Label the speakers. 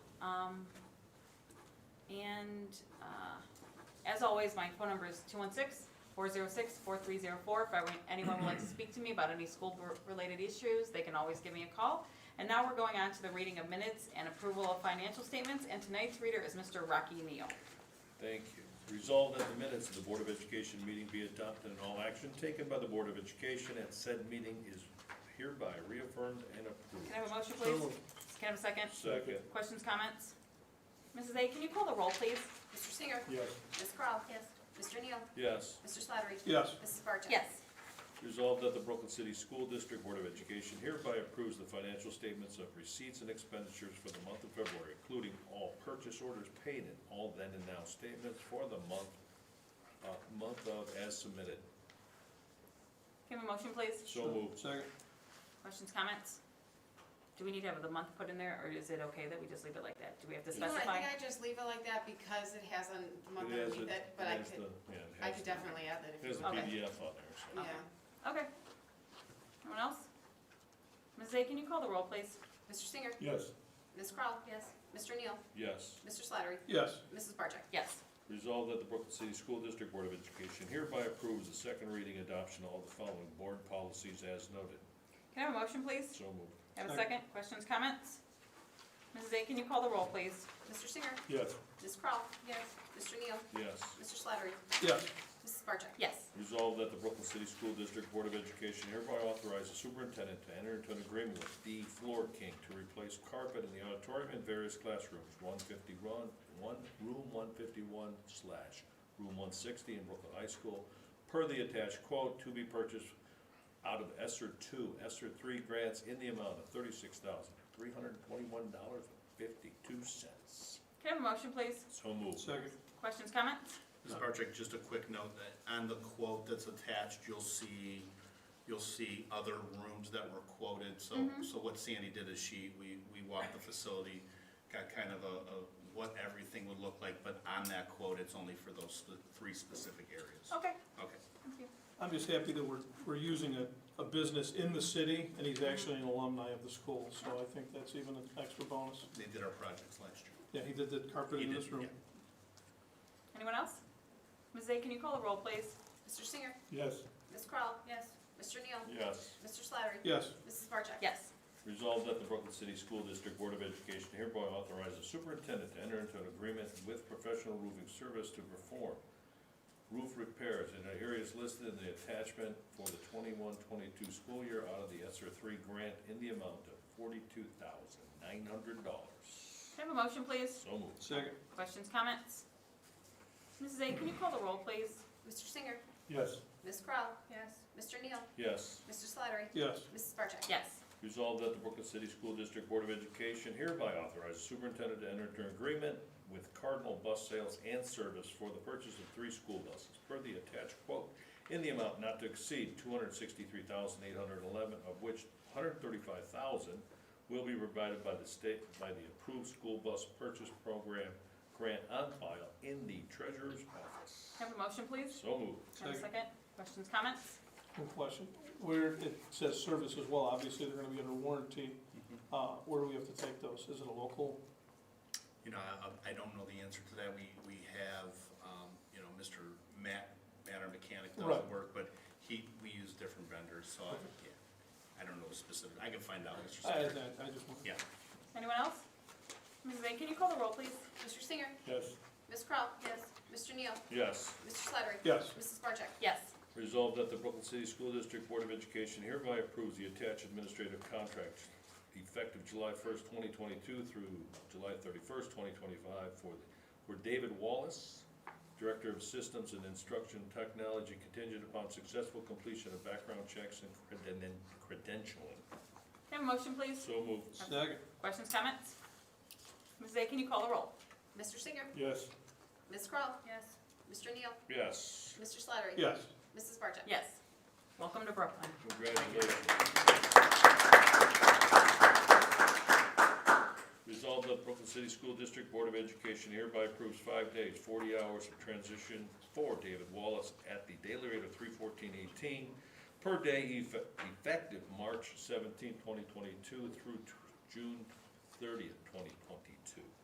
Speaker 1: Um, and, uh, as always, my phone number is 216 two one six, four zero six, four three zero four. If ever- anyone would like to speak to me about any school-related issues, they can always give me a call. And now we're going on to the reading of minutes and approval of financial statements, and tonight's reader is Mr. Rocky Neal.
Speaker 2: Thank you. Resolved that the minutes of the Board of Education meeting be adopted and all action taken by the Board of Education at said meeting is hereby reaffirmed and
Speaker 1: Can I have a
Speaker 2: approved.
Speaker 1: motion,
Speaker 3: So
Speaker 1: please?
Speaker 3: moved.
Speaker 1: Can I have a second?
Speaker 2: Second,
Speaker 1: Questions, comments? Mrs. A, can you call the roll, please?
Speaker 4: Mr. Singer.
Speaker 3: Yes.
Speaker 4: Ms. Kroll. Yes. Mr. Neal.
Speaker 2: yes.
Speaker 4: Mr. Slattery.
Speaker 3: Yes.
Speaker 4: Mrs. Barcheck.
Speaker 1: Yes.
Speaker 2: Resolved that the Brooklyn City School District Board of Education hereby approves the financial statements of receipts and expenditures for the month of February, including all purchase orders paid and all then and now statements for the month, uh, month of as submitted.
Speaker 1: Can I have a motion, please?
Speaker 2: So moved.
Speaker 3: Second.
Speaker 1: Questions, comments? Do we need to have the month put in there, or is it okay that we just leave it like that? Do we have to
Speaker 5: You know, I
Speaker 1: specify?
Speaker 5: think I just leave it like that because it has a month
Speaker 2: It
Speaker 5: and
Speaker 2: has
Speaker 5: week
Speaker 2: it-
Speaker 5: that, but
Speaker 2: it
Speaker 5: I
Speaker 2: has
Speaker 5: could,
Speaker 2: the- yeah, it
Speaker 5: I
Speaker 2: has
Speaker 5: could
Speaker 2: the-
Speaker 5: definitely add that if
Speaker 2: There's
Speaker 5: you
Speaker 2: a
Speaker 5: want.
Speaker 1: Okay.
Speaker 2: PDF on there, so.
Speaker 5: Yeah.
Speaker 1: Okay. Anyone else? Ms. A, can you call the roll, please?
Speaker 4: Mr. Singer.
Speaker 3: Yes.
Speaker 4: Ms. Kroll. Yes. Mr. Neal.
Speaker 2: Yes.
Speaker 4: Mr. Slattery.
Speaker 3: Yes.
Speaker 4: Mrs. Barcheck.
Speaker 1: Yes.
Speaker 2: Resolved that the Brooklyn City School District Board of Education hereby approves the second reading adoption of all the following board policies as noted.
Speaker 1: Can I have a motion, please?
Speaker 2: So moved.
Speaker 1: Have a
Speaker 3: Second.
Speaker 1: second? Questions, comments? Mrs. A, can you call the roll, please?
Speaker 4: Mr. Singer.
Speaker 3: Yes.
Speaker 4: Ms. Kroll. Yes. Mr. Neal.
Speaker 2: Yes.
Speaker 4: Mr. Slattery.
Speaker 3: Yes.
Speaker 4: Mrs. Barcheck.
Speaker 1: Yes.
Speaker 2: Resolved that the Brooklyn City School District Board of Education hereby authorize the superintendent to enter into an agreement with D Floor King to replace carpet in the auditorium and various classrooms, one fifty-one, one, room one fifty-one slash room one sixty in Brooklyn High School, per the attached quote, to be purchased out of ESSER two, ESSER three grants in the amount of thirty-six thousand, three hundred and twenty-one dollars and fifty-two cents.
Speaker 1: Can I have a motion, please?
Speaker 2: So moved.
Speaker 3: Second.
Speaker 1: Questions, comments?
Speaker 6: Ms. Barczyk, just a quick note that on the quote that's attached, you'll see, you'll see other rooms that were quoted. So, so what Sandy did is she, we, we walked the facility, got kind of a, a what everything would look like, but on that quote, it's only for those sp- three specific areas.
Speaker 1: Okay,
Speaker 6: Okay.
Speaker 1: thank you.
Speaker 3: I'm just happy that we're, we're using a, a business in the city, and he's actually an alumni of the school, so I think that's even an extra bonus.
Speaker 6: They did our projects last year.
Speaker 3: Yeah, he did the carpet
Speaker 6: He
Speaker 3: in
Speaker 6: did,
Speaker 3: this room.
Speaker 1: Anyone else? Ms. A, can you call the roll, please?
Speaker 4: Mr. Singer.
Speaker 3: Yes.
Speaker 4: Ms. Kroll. Yes. Mr. Neal.
Speaker 2: Yes.
Speaker 4: Mr. Slattery.
Speaker 3: Yes.
Speaker 4: Mrs. Barcheck.
Speaker 1: Yes.
Speaker 2: Resolved that the Brooklyn City School District Board of Education hereby authorize the superintendent to enter into an agreement with professional roofing service to perform roof repairs in the areas listed in the attachment for the 21-22 school year out of the ESSER three grant in the amount of forty-two thousand nine hundred dollars.
Speaker 1: Can I have a motion, please?
Speaker 2: So moved.
Speaker 3: Second.
Speaker 1: Questions, comments? Mrs. A, can you call the roll, please?
Speaker 4: Mr. Singer.
Speaker 3: Yes.
Speaker 4: Ms. Kroll. Yes. Mr. Neal.
Speaker 2: Yes.
Speaker 4: Mr. Slattery.
Speaker 3: Yes.
Speaker 4: Mrs. Barcheck.
Speaker 1: Yes.
Speaker 2: Resolved that the Brooklyn City School District Board of Education hereby authorize the superintendent to enter into an agreement with Cardinal Bus Sales and Service for the purchase of three school buses per the attached quote in the amount not to exceed two hundred sixty-three thousand eight hundred eleven, of which one hundred thirty-five thousand will be provided by the state, by the approved school bus purchase program grant on file in the treasurer's office.
Speaker 1: Can I have a motion, please?
Speaker 2: So moved.
Speaker 1: Have a
Speaker 3: Second.
Speaker 1: second? Questions, comments?
Speaker 3: One question. Where it says service as well, obviously they're gonna be under warranty. Uh, where do we have to take those? Is it a local?
Speaker 6: You know, I, I don't know the answer to that. We, we have, um, you know, Mr. Matt, Matter Mechanic does
Speaker 3: Right.
Speaker 6: the work, but he, we use different vendors, so I, yeah. I don't know the specific, I can find out, Mr.
Speaker 3: I, I,
Speaker 6: Secretary.
Speaker 3: I just want.
Speaker 6: Yeah.
Speaker 1: Anyone else? Mrs. A, can you call the roll, please?
Speaker 4: Mr. Singer.
Speaker 3: Yes.
Speaker 4: Ms. Kroll. Yes. Mr. Neal.
Speaker 2: Yes.
Speaker 4: Mr. Slattery.
Speaker 3: Yes.
Speaker 4: Mrs. Barcheck.
Speaker 1: Yes.
Speaker 2: Resolved that the Brooklyn City School District Board of Education hereby approves the attached administrative contract effective July first, twenty twenty-two through July thirty-first, twenty twenty-five for, for David Wallace, Director of Systems and Instruction Technology contingent upon successful completion of background checks and creden- credentialing.
Speaker 1: Can I have a motion, please?
Speaker 2: So moved.
Speaker 3: Second.
Speaker 1: Questions, comments? Mrs. A, can you call the roll?
Speaker 4: Mr. Singer.
Speaker 3: Yes.
Speaker 4: Ms. Kroll. Yes. Mr. Neal.
Speaker 2: Yes.
Speaker 4: Mr. Slattery.
Speaker 3: Yes.
Speaker 4: Mrs. Barcheck.
Speaker 1: Yes. Welcome to Brooklyn.
Speaker 2: Congratulations. Resolved that Brooklyn City School District Board of Education hereby approves five days, forty hours of transition for David Wallace at the daily rate of three fourteen eighteen per day effe- effective March 17, 2022, through t- June thirtieth, twenty twenty-two.